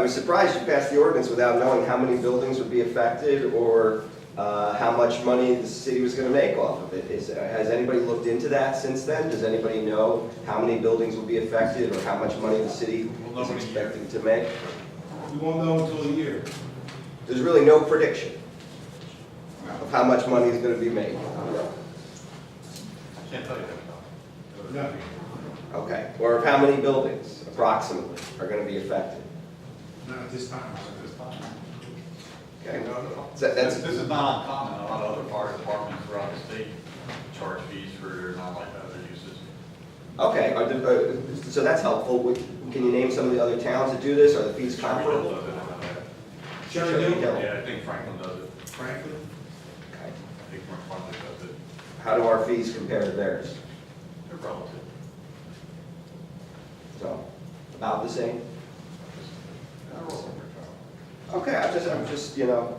was surprised you passed the ordinance without knowing how many buildings would be affected or uh, how much money the city was going to make off of it. Is, has anybody looked into that since then? Does anybody know how many buildings will be affected or how much money the city We'll know is in a year. expecting to make? We won't know until a year. There's really no prediction of how much money is going to be made. Can't tell you that. No. Okay, or of how many buildings approximately are going to be affected? Not at this time. This time. Okay, So This that's- this is not uncommon, a lot of other fire departments throughout the state charge fees for their non-like other uses. Okay, are the- uh, so that's helpful. Would- Can you name some of the other towns that do this? Are the fees comparable? Does it, I don't know. Cherry Hill, Yeah, I think Franklin does it, Franklin, Okay. I think Franklin does it, How do our fees compare to theirs? they're relative. So, about the same? Okay, I'm just, I'm just, you know,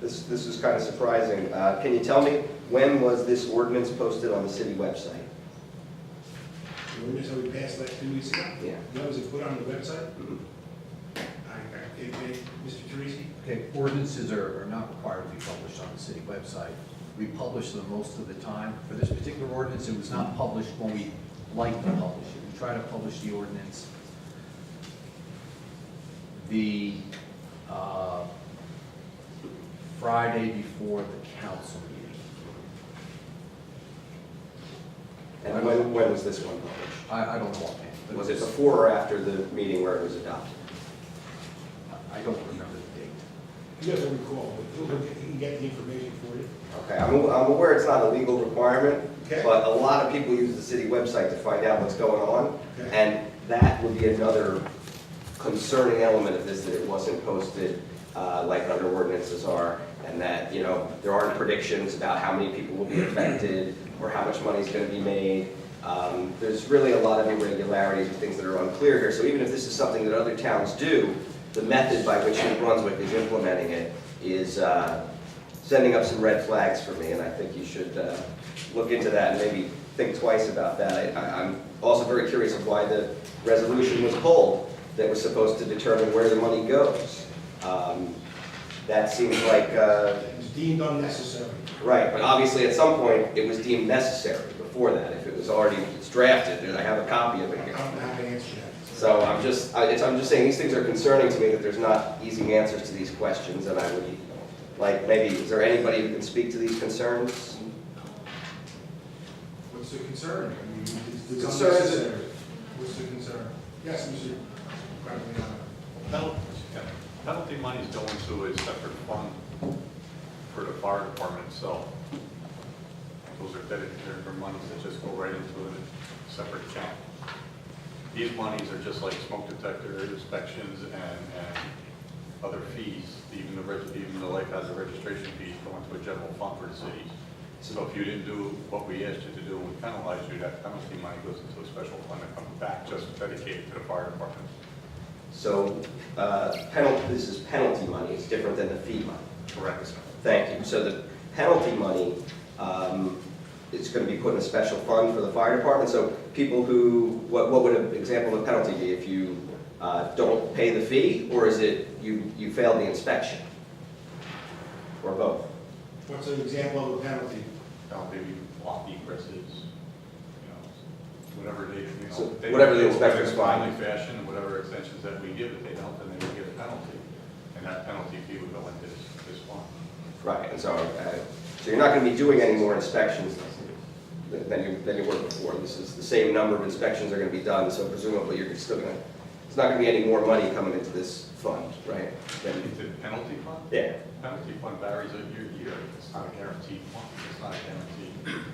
this, this is kind of surprising. Uh, Can you tell me, when was this ordinance posted on the city website? the ordinance that we passed like two weeks ago, Yeah. that was put on the website. Mhm. I, I, it- it- Mr. Teresi, Okay, ordinances are, are not required to be published on the city website. We publish them most of the time. For this particular ordinance, it was not published when we like to publish it. We try to publish the ordinance. The, uh, Friday before the council meeting. And when, when was this one published? I, I don't know offhand. but Was it before or after the meeting where it was adopted? I don't remember the date. he doesn't recall, but he'll, look at- he can get the information for you. Okay, I'm, I'm aware it's not a legal requirement, Okay. but a lot of people use the city website to find out what's going on. Okay. And that would be another concerning element of this, that it wasn't posted uh, like other ordinances are, and that, you know, there aren't predictions about how many people will be affected, or how much money is going to be made. Um, There's really a lot of irregularities and things that are unclear here, so even if this is something that other towns do, the method by which New Brunswick is implementing it is uh, sending up some red flags for me, and I think you should uh, look into that and maybe think twice about that. I- I- I'm also very curious of why the resolution was pulled that was supposed to determine where the money goes. Um, That seems like, uh, It was deemed unnecessary. right, but obviously at some point, it was deemed necessary before that, if it was already it's drafted, and I have a copy of it I here. don't know how to answer that. So I'm just, I- it's- I'm just saying, these things are concerning to me, that there's not easy answers to these questions, and I would, like, maybe, is there anybody who can speak to these concerns? What's the concern? I mean, it's- it's Concern is- unnecessary. What's the concern? Yes, Mr. Graziano. Penalty- yeah, Penalty money is going to a separate fund for the fire department itself. Those are dedicated for monies that just go right into a separate account. These monies are just like smoke detector inspections and, and other fees, even the, reg- even the life hazard registration fees go into a general fund for the city. So if you didn't do what we asked you to do, and we penalized you, that penalty money goes into a special fund that comes back just dedicated to the fire department. So uh, penalty, this is penalty money, it's different than the fee money. Correct. Thank you. So the penalty money um, is going to be put in a special fund for the fire department, so people who, what what would an example of a penalty be if you uh, don't pay the fee, or is it you you failed the inspection? Or both? What's an example of a penalty? Now, maybe lofty presses, you know, whatever they, you So, know. they- whatever the they will inspector's do it in a timely find. Fashion, and whatever extensions that we give, if they don't, then they would get a penalty. And that penalty fee would go into this, this fund. Right, and so, uh, so you're not going to be doing any more inspections th- than you, than you were before. This is, the same number of inspections are going to be done, so presumably you're still going to, it's not going to be any more money coming into this fund, right? Than- It's a penalty fund? Yeah, Penalty fund varies year to year. It's not a guaranteed fund. It's not a guarantee.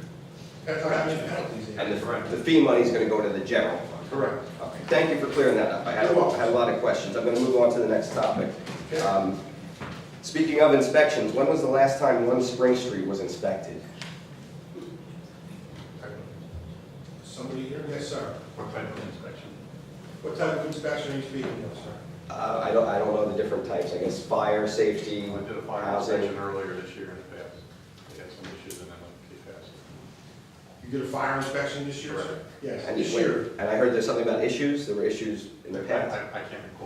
That's how many penalties. and the, the fee money is going to go to the general fund. Correct. Okay, thank you for clearing that up. I had, I had a lot of questions. I'm going to move on to the next topic. Okay. Um, Speaking of inspections, when was the last time one Spring Street was inspected? Somebody here? Yes, sir. What type of inspection? What type of inspection are you speaking of, sir? Uh, I don't, I don't know the different types, I guess fire, safety, I did a fire housing. inspection earlier this year and it passed. They had some issues and then it passed. You did a fire inspection this year, sir? Yes, And this you- wait, year. And I heard there's something about issues, there were issues in the I, past. I I can't